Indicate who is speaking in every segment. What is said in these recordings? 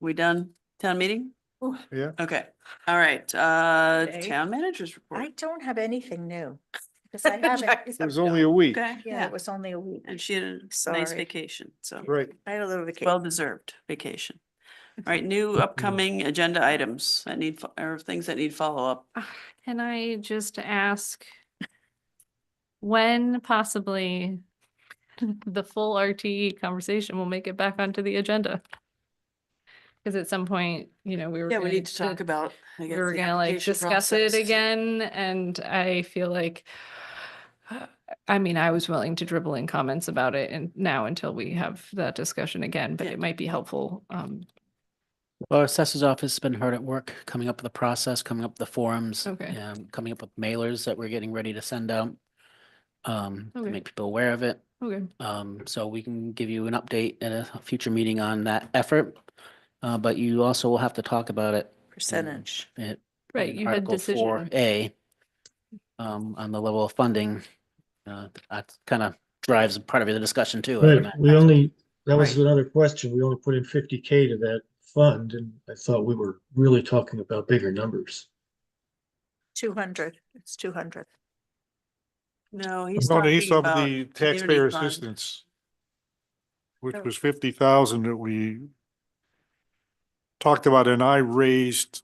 Speaker 1: We done town meeting?
Speaker 2: Yeah.
Speaker 1: Okay, all right, uh,
Speaker 3: Okay.
Speaker 1: town managers
Speaker 3: I
Speaker 1: report.
Speaker 3: don't have anything new. Because I haven't,
Speaker 1: Jackie's
Speaker 2: It
Speaker 1: up
Speaker 2: was
Speaker 1: to-
Speaker 2: only a week,
Speaker 1: Okay,
Speaker 3: yeah,
Speaker 1: yeah,
Speaker 3: it was only a week.
Speaker 1: and she had a nice
Speaker 3: Sorry.
Speaker 1: vacation, so
Speaker 2: right?
Speaker 3: I had a little vacation.
Speaker 1: well deserved vacation. All right, new upcoming agenda items that need, fo- or things that need follow up.
Speaker 4: Ah, Can I just ask when possibly the full RTE conversation will make it back onto the agenda? Because at some point, you know, we were.
Speaker 1: Yeah, we
Speaker 4: gonna
Speaker 1: need to talk
Speaker 4: di-
Speaker 1: about. I
Speaker 4: We
Speaker 1: guess,
Speaker 4: were
Speaker 1: the
Speaker 4: gonna like
Speaker 1: application
Speaker 4: discuss it
Speaker 1: process.
Speaker 4: again, and I feel like, I mean, I was willing to dribble in comments about it and now until we have that discussion again, but
Speaker 1: Yeah.
Speaker 4: it might be helpful. um,
Speaker 5: Well, our assessor's office has been hard at work, coming up with the process, coming up with the forums.
Speaker 4: Okay.
Speaker 5: um, Coming up with mailers that we're getting ready to send out. Um, to
Speaker 4: Okay.
Speaker 5: make people aware of it.
Speaker 4: Okay,
Speaker 5: Um, so we can give you an update at a future meeting on that effort. Uh, but you also will have to talk about it.
Speaker 3: Percentage.
Speaker 5: It.
Speaker 4: right,
Speaker 5: in
Speaker 4: you had
Speaker 5: Article
Speaker 4: decision.
Speaker 5: 4A, Um, on the level of funding. Uh, that kind of drives part of the discussion too. I would
Speaker 6: Right,
Speaker 5: imagine.
Speaker 6: we only, that was
Speaker 1: Right.
Speaker 6: another question. We only put in fifty K to that fund and I thought we were really talking about bigger numbers.
Speaker 3: Two hundred, it's two hundred.
Speaker 1: No, he's
Speaker 2: No, he's
Speaker 1: talking
Speaker 2: of
Speaker 1: about.
Speaker 2: the taxpayer
Speaker 1: fund.
Speaker 2: assistance, which
Speaker 3: Oh.
Speaker 2: was fifty thousand that we talked about and I raised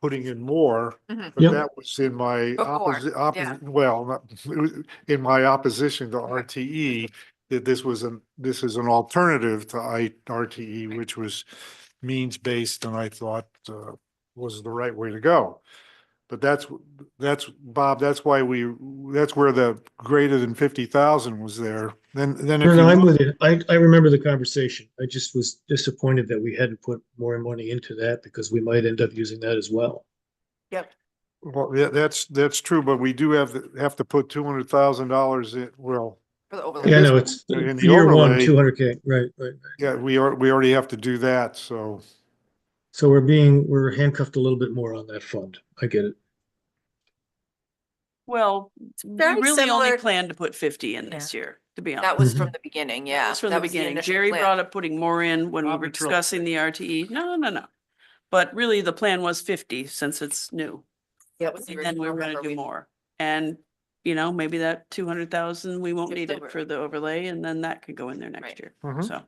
Speaker 2: putting in more,
Speaker 1: Mhm.
Speaker 2: but
Speaker 6: Yep.
Speaker 2: that was in my
Speaker 1: Before,
Speaker 2: opposite,
Speaker 1: yeah.
Speaker 2: opposite, well, not- it was in my opposition to E. RTE, that this was an, this is an alternative to I, RTE, which was means-based and I thought, uh, was the right way to go. But that's, that's, Bob, that's why we, that's where the greater than fifty thousand was there. Then, then if
Speaker 6: No,
Speaker 2: you
Speaker 6: no, I'm
Speaker 2: look-
Speaker 6: with you. I, I remember the conversation. I just was disappointed that we hadn't put more money into that because we might end up using that as well.
Speaker 2: well, yeah, that's, that's true, but we do have, to- have to put two hundred thousand dollars in, well,
Speaker 6: Yeah, no, it's
Speaker 2: And in the
Speaker 6: year one,
Speaker 2: overlay-
Speaker 6: two hundred K, right, right.
Speaker 2: yeah, we are, we already have to do that, so.
Speaker 6: So we're being, we're handcuffed a little bit more on that fund. I get it.
Speaker 1: Well, we
Speaker 3: very
Speaker 1: really only
Speaker 7: similar-
Speaker 1: planned to put fifty in
Speaker 3: Yeah.
Speaker 1: this year, to be honest.
Speaker 7: That was
Speaker 6: Mhm.
Speaker 7: from the beginning,
Speaker 1: That
Speaker 7: yeah.
Speaker 1: was From the
Speaker 7: that was
Speaker 1: beginning,
Speaker 7: initial
Speaker 1: Jerry
Speaker 7: plan.
Speaker 1: brought up putting more in when we
Speaker 2: Bob
Speaker 1: were
Speaker 2: Petrel.
Speaker 1: discussing the RTE. No, no, no. But really, the plan was fifty since it's new.
Speaker 7: That was the
Speaker 1: And then we
Speaker 7: original
Speaker 1: were gonna
Speaker 7: number
Speaker 1: do
Speaker 7: we-
Speaker 1: more. And, you know, maybe that two hundred thousand, we won't
Speaker 7: It's
Speaker 1: need it
Speaker 7: over.
Speaker 1: for the overlay and then that could go in there next
Speaker 7: Right.
Speaker 1: year.
Speaker 5: Mm-hmm.
Speaker 2: Mhm.
Speaker 1: So,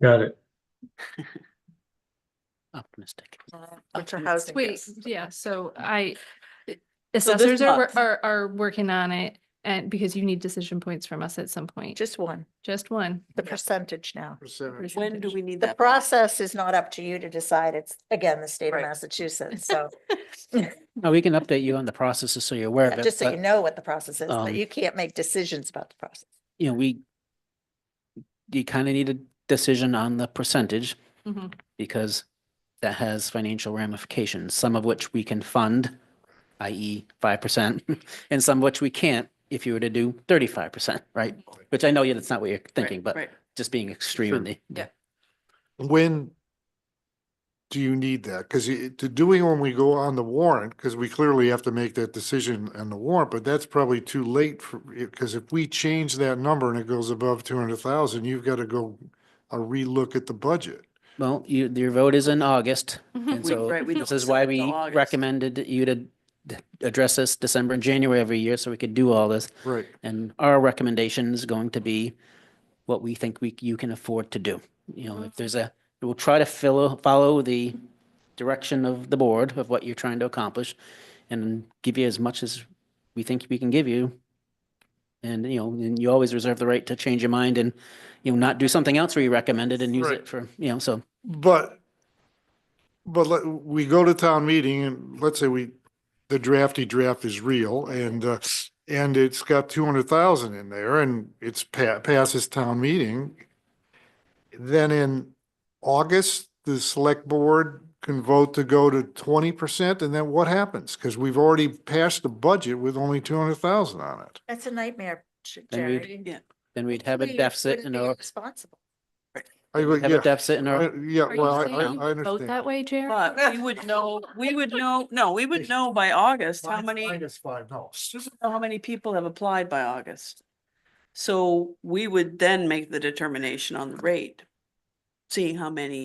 Speaker 6: Got it.
Speaker 5: Optimistic.
Speaker 7: Uh,
Speaker 3: Which are
Speaker 5: Optimistic.
Speaker 3: housing.
Speaker 4: Wait, yeah, so I,
Speaker 1: So this
Speaker 4: assessors are, wor-
Speaker 1: month-
Speaker 4: are, are working on it and because you need decision points from us at some point,
Speaker 3: Just one,
Speaker 4: just one.
Speaker 3: the percentage now.
Speaker 2: Percentage.
Speaker 1: when do
Speaker 4: Percentage.
Speaker 1: we need
Speaker 3: The
Speaker 1: that?
Speaker 3: process is not up to you to decide. It's, again, the state of
Speaker 7: Right.
Speaker 3: Massachusetts, so.
Speaker 5: No, we can update you on the processes so you're aware of
Speaker 3: Yeah,
Speaker 5: it.
Speaker 3: Just so
Speaker 5: but-
Speaker 3: you know what the process is, but
Speaker 5: um,
Speaker 3: you can't make decisions about the process.
Speaker 5: you know, we, you kind of need a decision on the percentage
Speaker 4: Mhm.
Speaker 2: Uh,
Speaker 5: because that has financial ramifications, some of which we can fund, i.e. five percent, and some which we can't if you were to do thirty-five percent, right? Which I know you that's not what you're thinking, but
Speaker 1: Right.
Speaker 5: just being extreme
Speaker 2: Sure.
Speaker 5: in the.
Speaker 7: Yeah.
Speaker 2: When do you need that? Because to doing when we go on the warrant, because we clearly have to make that decision on the warrant, but that's probably too late for, because if we change that number and it goes above two hundred thousand, you've got to go a relook at the budget.
Speaker 5: Well, you, your vote is in August, and
Speaker 1: Mm-hmm. We-
Speaker 5: so
Speaker 1: right, we
Speaker 5: this
Speaker 1: don't
Speaker 5: is
Speaker 1: sit
Speaker 5: why
Speaker 1: until
Speaker 5: we
Speaker 1: August.
Speaker 5: recommended you to d- address this December and January every year so we could do all this.
Speaker 2: Right.
Speaker 5: And our recommendation is going to be what we think we, you can afford to do. You know, if there's a, we'll try to fill, follow the direction of the board of what you're trying to accomplish and give you as much as we think we can give you. And, you know, and you always reserve the right to change your mind and, you know, not do something else where you recommended and use
Speaker 2: Right.
Speaker 5: it for, you know, so.
Speaker 2: But, but let, we go to town meeting and let's say we, the drafty draft is real and, uh, and it's got two hundred thousand in there and it's pa- passes town meeting. Then in August, the select board can vote to go to twenty percent and then what happens? Because we've already passed the budget with only two hundred thousand on it.
Speaker 3: That's a nightmare, Ch-
Speaker 5: Then we'd
Speaker 3: Jerry.
Speaker 5: Then we'd have a
Speaker 3: We
Speaker 5: deficit
Speaker 3: wouldn't
Speaker 5: in
Speaker 3: be
Speaker 5: our,
Speaker 3: Responsible.
Speaker 2: I, would-
Speaker 5: have a
Speaker 2: yeah,
Speaker 5: deficit in our,
Speaker 2: I- yeah,
Speaker 4: Are you
Speaker 2: well, I,
Speaker 4: saying
Speaker 2: I
Speaker 4: you
Speaker 2: I
Speaker 4: Vote that
Speaker 2: understand.
Speaker 4: way, Jerry?
Speaker 1: But we would know, we would know, no, we would know by August how many,
Speaker 2: Minus five, no.
Speaker 1: how many people have applied by August. So we would then make the determination on the rate, seeing how many